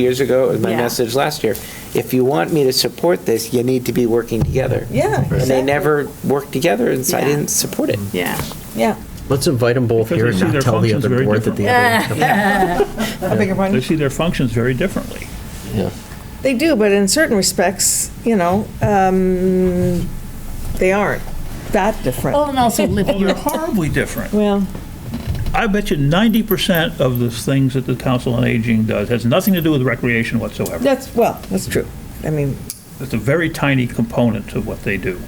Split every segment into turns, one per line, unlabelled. years ago, it was my
Yeah.
message last year, if you want me to support this, you need to be working together.
Yeah,
And they
exactly.
never worked together, and so I
Yeah.
didn't support it.
Yeah.
Yeah,
Let's invite them both
Because
here
I
and
see
not
their
tell the
functions
other
very
board that the other.
I beg your
They
pardon.
see their functions very differently.
They do, but in certain respects, you know, um, they aren't that different.
Well, and also
Well, Oh, they're
Libby,
horribly different.
Well,
I bet you ninety percent of the things that the Council on Aging does has nothing to do with recreation whatsoever.
that's, well, that's true. I mean,
It's a very tiny component of what they do.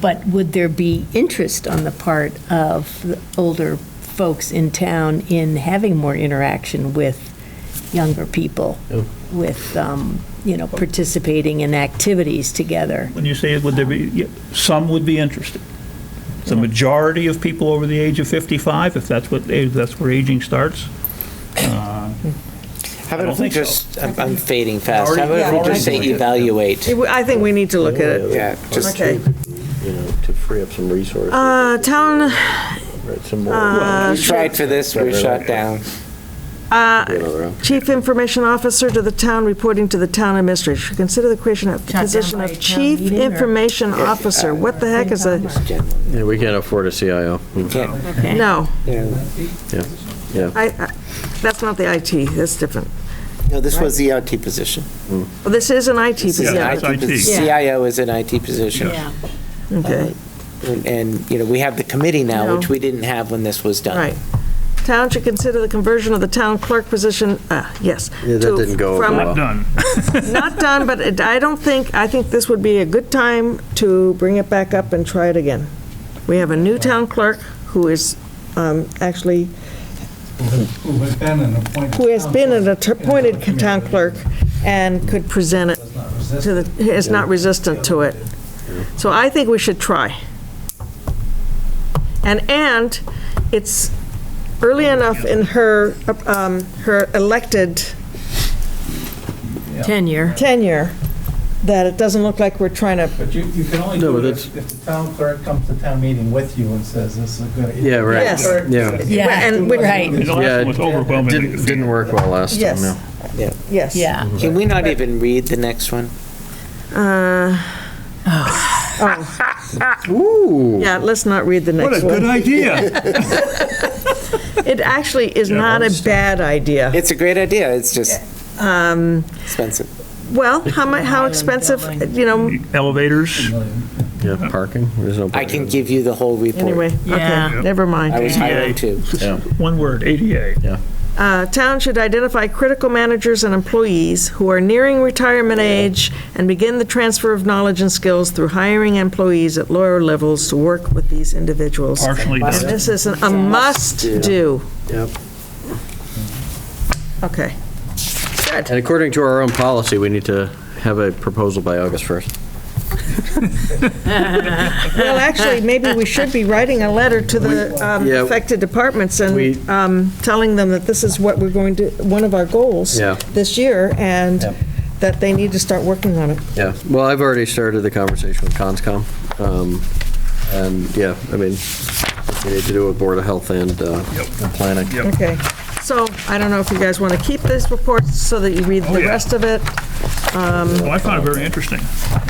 but would there be interest on the part of the older folks in town in having more interaction with younger people? With, um, you know, participating in activities together?
When you say, would there be, yeah, some would be interested. The majority of people over the age of fifty-five, if that's what, if that's where aging starts. uh,
How about
don't
if we
think so.
just, I'm I'm fading fast,
Already-
how about
yeah,
if we just say
already-
evaluate?
it- I think we need to look at it.
Yeah, just,
Okay.
you know, to free up some resources.
Uh, town, uh,
Right, Some more.
we tried for this, we were shut down.
you know, around.
Uh, Chief Information Officer to the town, reporting to the town administrator. Should Consider the creation of the
Shot down
position
by
of
a town
Chief
meeting or-
Information Officer. What the heck is a,
Yeah, we can't afford a CIO.
Can't-
no,
you know,
I, I- that's not the IT, that's different.
No, this was the IT position.
Well, This is an IT
This is an
position.
Yeah,
IT
it's IT.
posi- CIO is an IT position. Uh,
Okay,
And- And, you know, we have the committee now,
No.
which we didn't have when this was done.
right. Town should consider the conversion of the town clerk position, uh, yes.
Yeah, that
to-
didn't go over
from-
well.
Not done.
Not done, but it- I don't think, I think this would be a good time to bring it back up and try it again. We have a new town clerk who is um, actually,
Who has been an appointed.
who has been an
council
appointed
in the
town
community.
clerk and could present it
Does not resist
to the, is not resistant to it. So I think we should try. And, and it's early enough in her, um, her elected
Tenure.
tenure that it doesn't look like we're trying to,
But you, you can only
No,
do
but
it if if the town clerk comes to town meeting with you and says, this is a good.
Yeah, right.
Yes.
Yeah.
Yeah,
and we-
The last
Yeah,
one was overwhelmingly
Didn't, didn't work well last time,
Yes.
no.
yes.
Yeah.
Can we not even read the next one?
Uh,
Ooh.
Yeah, let's not read the
What a
next
good
one.
idea.
It actually is
Yeah,
not a
understand.
bad idea. Um,
It's a great idea, it's just expensive.
Well, how mu, how expensive, you know,
Elevators.
Yeah, parking, there's no.
I can give you the whole report.
anyway,
Yeah.
okay, never
I was
mind.
hired too.
Yeah.
One word, ADA.
Uh, Town should identify critical managers and employees who are nearing retirement age and begin the transfer of knowledge and skills through hiring employees at lower levels to work with these individuals.
Partially
Must-
done.
This is an- a must-do.
Yep.
Okay.
And according to our own policy, we need to have a proposal by August 1st.
Well, actually, maybe we should be writing a letter to the um,
Yeah.
affected departments
We-
and um, telling them that this is what we're going to, one of our goals
Yeah.
this year, and
Yeah.
that they need to start working on it.
Yeah, well, I've already started the conversation with CONSCOM. um, And, yeah, I mean, we need to do with Board of Health and uh, and planning.
Yep.
Okay. So I don't know if you guys want to keep this report so that you read
Oh,
the
yeah.
rest of it.
Well, Oh, I found it very interesting.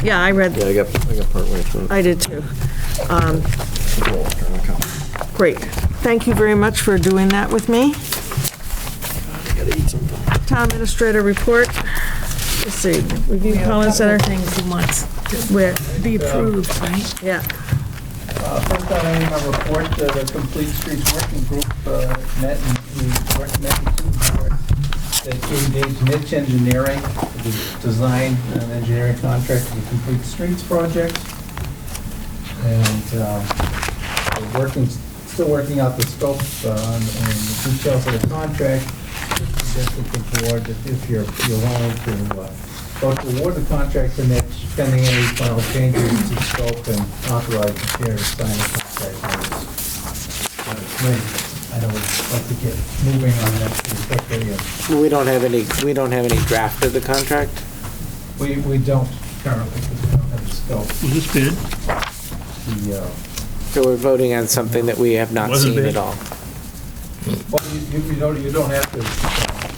Yeah, I
Yeah,
read,
I got, I got partway through.
I did too. Um, Great. Thank you very much for doing that with me. Town Administrator Report. Let's see, Review Collins Center,
Things he wants
where,
to be approved, right?
yeah.
Uh, First on my report, uh, the Complete Streets Working Group uh, met and we worked met with two boards that engaged niche engineering, to do design and engineering contract for the Complete Streets project. And um, we're working, still working out the scope uh, and and the details of the contract. Suggested the board that if you're, you're willing to uh, vote to award the contract to niche pending any final changes to scope and authorize the chair to sign the contract. when it's- when it's ready. I know we'd like to get moving on that pretty quickly. and
We don't have any, we don't have any draft of the contract?
We, we don't currently, because we don't have the scope.
Was this bid?
The, uh,
So we're voting on something that we have not
Wasn't
seen
there-
at all.
Well, you, you- you don't, you don't have to